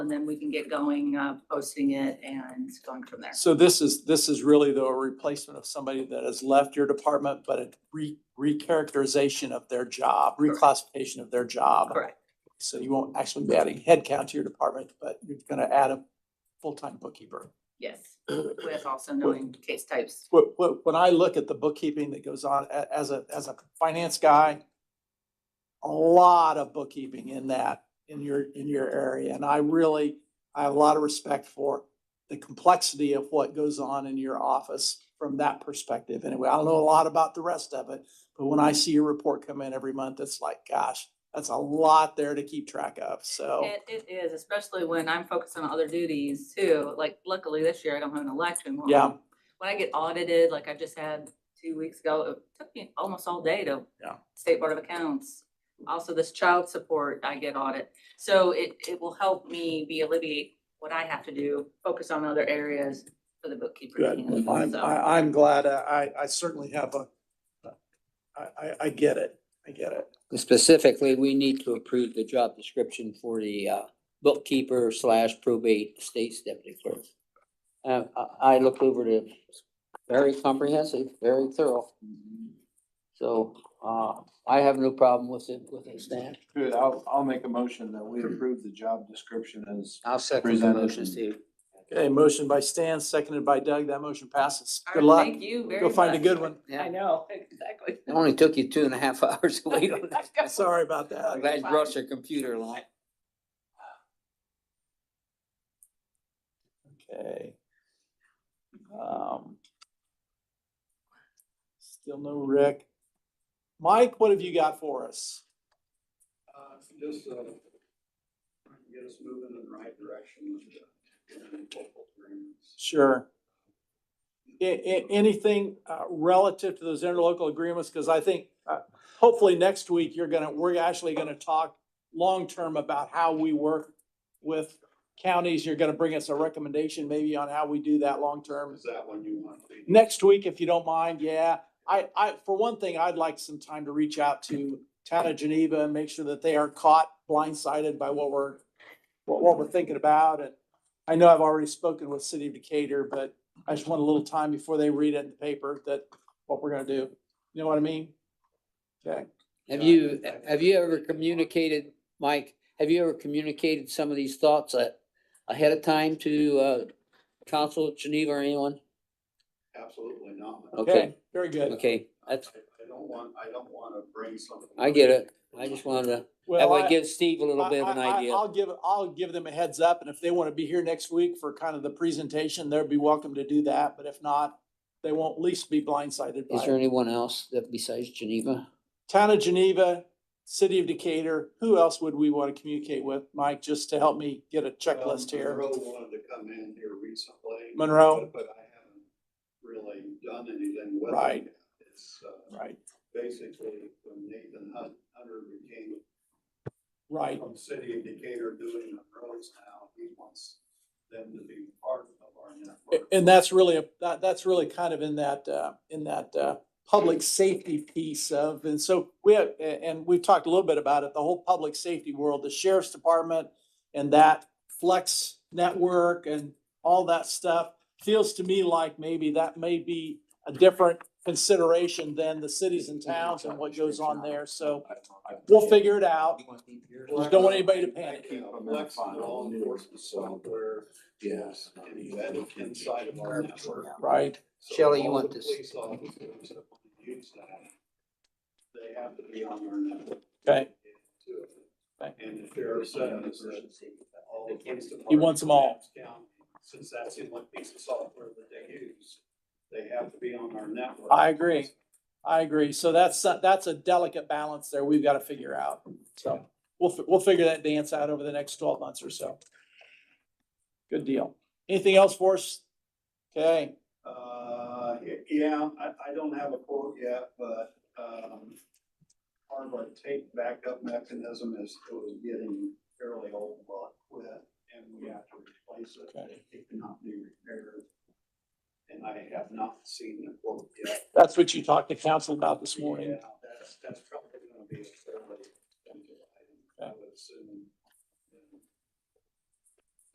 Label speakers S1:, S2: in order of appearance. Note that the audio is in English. S1: and then we can get going, uh, posting it and going from there.
S2: So this is, this is really though a replacement of somebody that has left your department, but a re, recharacterization of their job,
S1: Correct.
S2: reclassification of their job.
S1: Correct,
S2: So you won't actually be adding headcount to your department, but you're gonna add a full-time bookkeeper.
S1: yes, with also knowing case types.
S2: What, what, when I look at the bookkeeping that goes on a- as a, as a finance guy, a lot of bookkeeping in that, in your, in your area. And I really, I have a lot of respect for the complexity of what goes on in your office from that perspective. Anyway, I don't know a lot about the rest of it, but when I see your report come in every month, it's like, gosh, that's a lot there to keep track of. So.
S1: It, it is, especially when I'm focused on other duties too. Like luckily this year I don't have an election. When-
S2: Yeah.
S1: When I get audited, like I just had two weeks ago, it took me almost all day to
S2: Yeah.
S1: State Board of Accounts. Also this child support, I get audit. So it, it will help me be alleviate what I have to do, focus on other areas for the bookkeeper. to
S2: Good.
S1: handle,
S2: I'm,
S1: so.
S2: I, I'm glad. uh, I, I certainly have a, I, I, I get it. I get it.
S3: Specifically, we need to approve the job description for the uh, bookkeeper slash probate estates deputy clerk. Uh, I, I looked over it, it's very comprehensive, very thorough. So, uh, I have no problem with it, with it, Stan.
S4: Good, I'll, I'll make a motion that we approve the job description as.
S3: I'll second the
S4: Presented.
S3: motion, Steve.
S2: Okay, motion by Stan, seconded by Doug. That motion passes.
S1: All
S2: Good
S1: right,
S2: luck.
S1: Thank you very
S2: Go find a
S1: much.
S2: good one.
S1: I know, exactly.
S3: It only took you two and a half hours to wait on that.
S2: Sorry about that.
S3: I'm glad you brought your computer along.
S2: Okay. Um. Still no Rick. Mike, what have you got for us?
S5: Uh, just, uh, trying to get us moving in the right direction with the.
S2: Sure. A- a- anything, uh, relative to those interlocal agreements, because I think, uh, hopefully next week, you're gonna, we're actually gonna talk long-term about how we work with counties. You're gonna bring us a recommendation maybe on how we do that long-term.
S5: Is that one you want? Lee?
S2: Next week, if you don't mind, yeah. I, I, for one thing, I'd like some time to reach out to town of Geneva and make sure that they are caught blindsided by what we're, what, what we're thinking about. And I know I've already spoken with city of Decatur, but I just want a little time before they read it in the paper that what we're gonna do. You know what I mean? Okay.
S3: Have you, have you ever communicated, Mike, have you ever communicated some of these thoughts a- ahead of time to uh, council at Geneva or anyone?
S5: Absolutely not.
S3: Okay,
S2: Very good.
S3: okay, that's,
S5: I I don't want, I don't want to bring something.
S3: I get it. I just wanted to, that
S2: Well,
S3: way
S2: I-
S3: give Steve a little bit of an
S2: I- I- I-
S3: idea.
S2: I'll give, I'll give them a heads up and if they want to be here next week for kind of the presentation, they'd be welcome to do that. But if not, they won't at least be blindsided by
S3: Is there
S2: it.
S3: anyone else that besides Geneva?
S2: Town of Geneva, City of Decatur, who else would we want to communicate with, Mike, just to help me get a checklist
S5: Um,
S2: here?
S5: Monroe wanted to come in here recently.
S2: Monroe?
S5: But but I haven't really done anything with it.
S2: Right.
S5: yet. It's, uh,
S2: Right,
S5: basically when Nathan Hunt, Hunter became
S2: right.
S5: from City of Decatur doing the roads now, he wants them to be part of our network.
S2: And that's really, a that, that's really kind of in that, uh, in that, uh, public safety piece of, and so we have, a- and we've talked a little bit about it, the whole public safety world, the sheriff's department and that flex network and all that stuff feels to me like maybe that may be a different consideration than the cities and towns and what goes on there. So we'll figure it out. Just don't want anybody to panic.
S5: Keep them in file. Law enforcement software is embedded inside of our network.
S2: Right,
S5: So
S3: Shelley, you
S5: all
S3: want
S5: the
S3: this?
S5: Police officers that want to use that, they have to be on our network
S2: okay.
S5: too.
S2: Okay.
S5: And the sheriff says that all the police departments.
S2: He wants 'em all.
S5: in Adams County, Since that's the only piece of software that they use, they have to be on our network.
S2: I agree. I agree. So that's, that's a delicate balance there we've got to figure out. So we'll, fi- we'll figure that dance out over the next twelve months or so. Good deal. Anything else for us? Okay,
S5: Uh, y- yeah, I, I don't have a quote yet, but, um, part of our take backup mechanism is it was getting fairly old, but quit, and we have to replace
S2: Okay.
S5: it. It cannot be repaired. And I have not seen the quote yet.
S2: that's what you talked to council about this morning.
S5: Yeah,